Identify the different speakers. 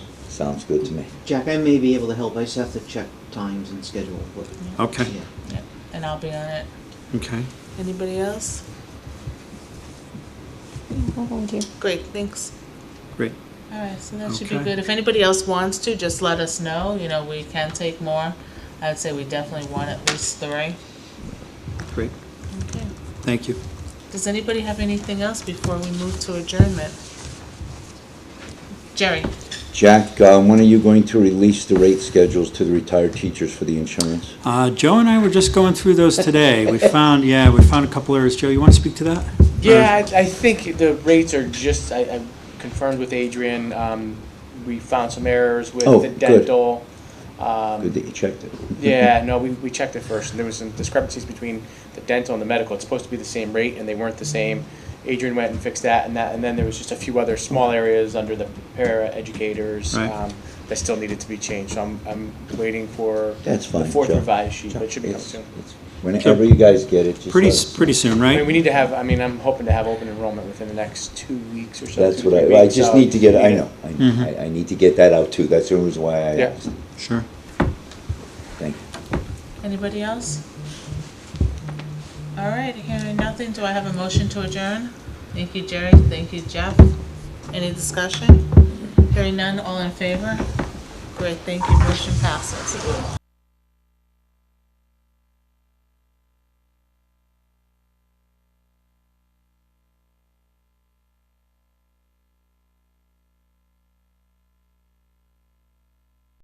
Speaker 1: sounds good to me.
Speaker 2: Jack, I may be able to help, I just have to check times and schedule, but,
Speaker 3: Okay,
Speaker 2: yeah.
Speaker 4: Yeah, And I'll be on it.
Speaker 3: okay.
Speaker 4: Anybody else?
Speaker 5: I'll volunteer.
Speaker 4: Great, thanks.
Speaker 3: Great.
Speaker 4: All right, so that should be
Speaker 3: Okay.
Speaker 4: good. If anybody else wants to, just let us know. You know, we can take more. I'd say we definitely want at least three.
Speaker 3: Great.
Speaker 4: Okay.
Speaker 3: Thank you.
Speaker 4: Does anybody have anything else before we move to adjournment? Jerry?
Speaker 1: Jack, uh, when are you going to release the rate schedules to the retired teachers for the insurance?
Speaker 3: Uh, Joe and I were just going through those today. We found, yeah, we found a couple areas. Joe, you want to speak to that? Uh,
Speaker 6: Yeah, I, I think the rates are just, I, I confirmed with Adrian, um, we found some errors with
Speaker 1: Oh,
Speaker 6: the
Speaker 1: good.
Speaker 6: dental. um,
Speaker 1: Good that you checked it.
Speaker 6: Yeah, no, we, we checked it first, and there was some discrepancies between the dental and the medical. It's supposed to be the same rate, and they weren't the same. Adrian went and fixed that and that, and then there was just a few other small areas under the para educators,
Speaker 3: Right.
Speaker 6: um, that still needed to be changed, so I'm, I'm waiting for
Speaker 1: That's
Speaker 6: the
Speaker 1: fine,
Speaker 6: fourth
Speaker 1: Joe.
Speaker 6: revised sheet, but it should be coming
Speaker 1: It's-
Speaker 6: soon.
Speaker 1: it's- Whenever you guys get it, just
Speaker 3: Pretty,
Speaker 1: let
Speaker 3: s-
Speaker 1: us know.
Speaker 3: pretty soon,
Speaker 6: I mean, we
Speaker 3: right?
Speaker 6: need to have, I mean, I'm hoping to have open enrollment within the next two weeks or so.
Speaker 1: That's
Speaker 6: two to
Speaker 1: what
Speaker 6: three
Speaker 1: I, I
Speaker 6: weeks,
Speaker 1: just
Speaker 6: so
Speaker 1: need to get,
Speaker 6: we
Speaker 1: I know,
Speaker 3: Mm-hmm.
Speaker 1: I- I, I need to get that out too, that's the reason why I
Speaker 6: Yeah.
Speaker 1: asked.
Speaker 3: Sure.
Speaker 1: Thank you.
Speaker 4: Anybody else? All right, hearing nothing, do I have a motion to adjourn? Thank you, Jerry, thank you, Jeff. Any discussion? Hearing none, all in favor? Great, thank you, motion passes.